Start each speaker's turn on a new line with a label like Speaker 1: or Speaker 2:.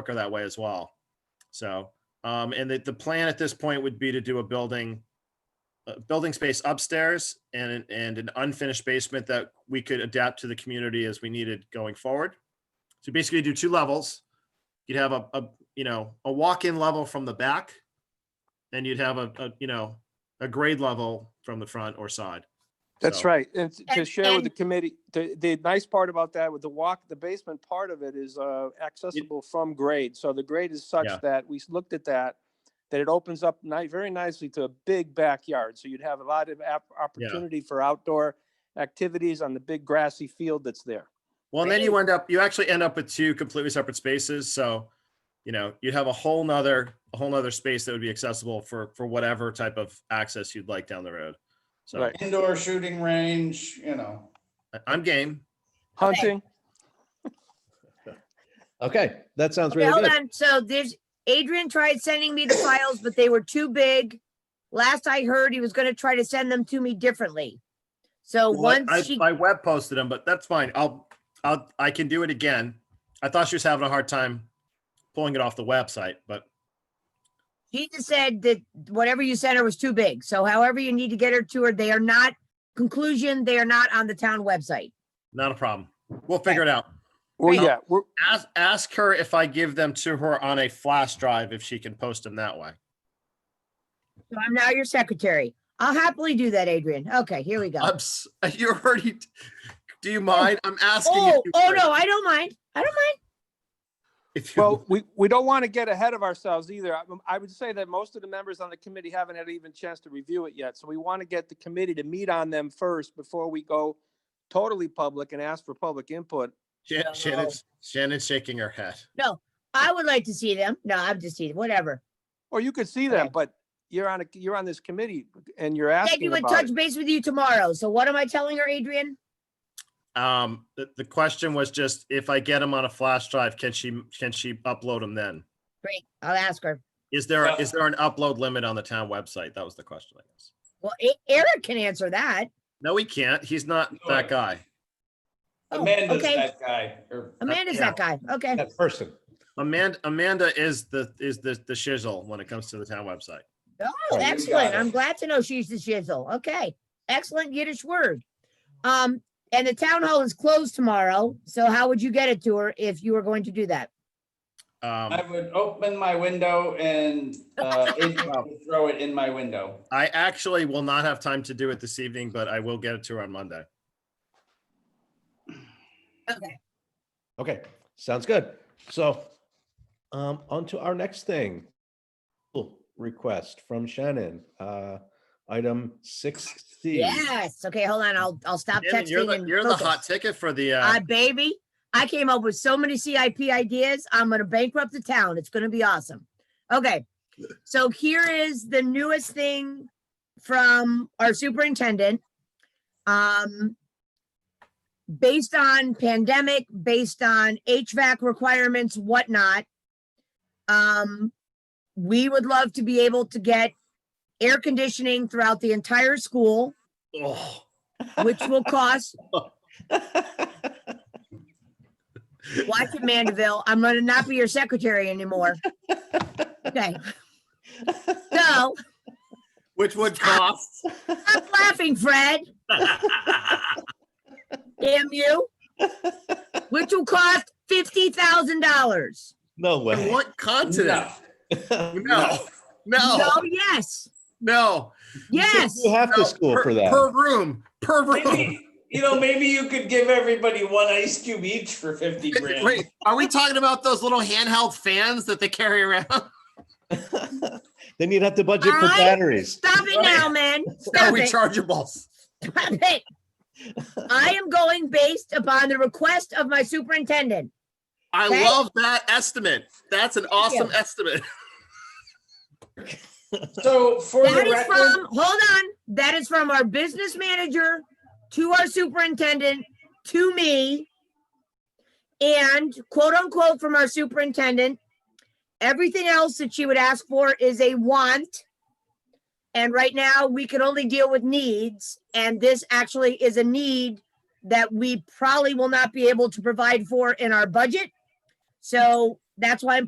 Speaker 1: quicker that way as well. So, um, and the, the plan at this point would be to do a building, a building space upstairs and, an- and an unfinished basement that we could adapt to the community as we needed going forward. So basically do two levels. You'd have a, a, you know, a walk-in level from the back. And you'd have a, a, you know, a grade level from the front or side.
Speaker 2: That's
Speaker 1: So-
Speaker 2: right. And t- to
Speaker 3: And-
Speaker 2: share with the
Speaker 3: and-
Speaker 2: committee, the, the nice part about that with the walk, the basement part of it is uh, accessible from grade. So the grade is such
Speaker 1: Yeah.
Speaker 2: that we s- looked at that, that it opens up ni- very nicely to a big backyard. So you'd have a lot of app- opportunity for outdoor activities on the big grassy field that's there.
Speaker 1: Well, and then you end up, you actually end up with two completely separate spaces, so, you know, you'd have a whole nother, a whole nother space that would be accessible for, for whatever type of access you'd like down the road. So
Speaker 2: Right.
Speaker 4: indoor shooting range, you know.
Speaker 1: I- I'm game.
Speaker 2: Hunting,
Speaker 5: Okay, that sounds
Speaker 3: Okay,
Speaker 5: really
Speaker 3: hold
Speaker 5: good.
Speaker 3: on. So there's, Adrian tried sending me the files, but they were too big. Last I heard, he was gonna try to send them to me differently. So
Speaker 1: Well, I,
Speaker 3: once she,
Speaker 1: I web posted them, but that's fine. I'll, I'll, I can do it again. I thought she was having a hard time pulling it off the website, but
Speaker 3: she just said that whatever you sent her was too big. So however you need to get her to her, they are not, conclusion, they are not on the town website.
Speaker 1: not a problem. We'll figure it out.
Speaker 2: well,
Speaker 1: Right.
Speaker 2: yeah, we're,
Speaker 1: Ask, ask her if I give them to her on a flash drive, if she can post them that way.
Speaker 3: So I'm now your secretary. I'll happily do that, Adrian. Okay, here we go.
Speaker 1: I'm, s- you're already, do you mind? I'm asking. if
Speaker 3: Oh,
Speaker 1: you
Speaker 3: oh
Speaker 1: would.
Speaker 3: no, I don't mind. I don't mind.
Speaker 1: If you
Speaker 2: well, we, we don't want to get ahead of ourselves either. I- I would say that most of the members on the committee haven't had even chance to review it yet. So we want to get the committee to meet on them first before we go totally public and ask for public input.
Speaker 1: Shan-
Speaker 3: No.
Speaker 1: Shannon's, Shannon's shaking her head.
Speaker 3: I would like to see them. No, I'm just teasing, whatever.
Speaker 2: Or you could see them,
Speaker 3: Okay.
Speaker 2: but you're on, a you're on this committee and you're
Speaker 3: Said you
Speaker 2: asking
Speaker 3: would
Speaker 2: about
Speaker 3: touch
Speaker 2: it.
Speaker 3: base with you tomorrow. So what am I telling her, Adrian?
Speaker 1: Um, the, the question was just if I get them on a flash drive, can she, can she upload them then?
Speaker 3: Great, I'll ask her.
Speaker 1: Is there, a- is
Speaker 4: Uh.
Speaker 1: there an upload limit on the town website? That was the question, I guess.
Speaker 3: Well, E- Eric can answer that.
Speaker 1: No, he can't. He's not that guy.
Speaker 3: Oh,
Speaker 4: Amanda's
Speaker 3: okay.
Speaker 4: that guy. or-
Speaker 3: Amanda's that guy. Okay,
Speaker 5: That person.
Speaker 1: Amanda, Amanda is the, is the, the shizzle when it comes to the town website.
Speaker 3: oh,
Speaker 4: you got
Speaker 3: excellent.
Speaker 4: it.
Speaker 3: I'm glad to know she's the shizzle. Okay, excellent Yiddish word. Um, and the town hall is closed tomorrow. So how would you get it to her if you were going to do that?
Speaker 4: I
Speaker 1: Um,
Speaker 4: would open my window and uh, Adrian would throw it in my window.
Speaker 1: I actually will not have time to do it this evening, but I will get it to her on Monday.
Speaker 5: Okay, sounds good. So um, on to our next thing. Cool. Request from Shannon, uh, item six C.
Speaker 3: Yes. Okay, hold on. I'll I'll stop
Speaker 1: Shannon, You're
Speaker 3: texting
Speaker 1: the,
Speaker 3: and
Speaker 1: you're the hot
Speaker 3: focus.
Speaker 1: ticket for the,
Speaker 3: I
Speaker 1: uh,
Speaker 3: baby, I came up with so many CIP ideas. I'm gonna bankrupt the town. It's gonna be awesome. Okay, so here is the newest thing from our superintendent. Um, based on pandemic, based on HVAC requirements, whatnot. Um, we would love to be able to get air conditioning throughout the entire school,
Speaker 1: oh,
Speaker 3: which will cost Watch it, Mandeville. I'm gonna not be your secretary anymore. Okay. So,
Speaker 1: which would cost.
Speaker 3: stop laughing, Fred. Damn you. Which will cost fifty thousand dollars.
Speaker 5: No way.
Speaker 1: What continent? No,
Speaker 3: No,
Speaker 1: no,
Speaker 3: yes,
Speaker 1: no.
Speaker 3: yes.
Speaker 5: You have
Speaker 1: no,
Speaker 5: to school
Speaker 1: per-
Speaker 5: for that.
Speaker 1: Per room, per room.
Speaker 4: Maybe, you know, maybe you could give everybody one ice cube each for fifty grand.
Speaker 1: Wait, are we talking about those little handheld fans that they carry around?
Speaker 5: Then you'd have to budget for
Speaker 3: I-
Speaker 5: batteries.
Speaker 3: Stop it now, man.
Speaker 1: They're
Speaker 3: Stop it.
Speaker 1: rechargeables.
Speaker 3: Stop it. I am going based upon the request of my superintendent.
Speaker 1: I
Speaker 3: Okay.
Speaker 1: love that estimate. That's an awesome
Speaker 3: you.
Speaker 1: estimate.
Speaker 4: So for
Speaker 3: That
Speaker 4: the
Speaker 3: is
Speaker 4: record,
Speaker 3: from, hold on, that is from our business manager to our superintendent, to me. And quote unquote from our superintendent, everything else that she would ask for is a want. And right now, we can only deal with needs, and this actually is a need that we probably will not be able to provide for in our budget. So that's why I'm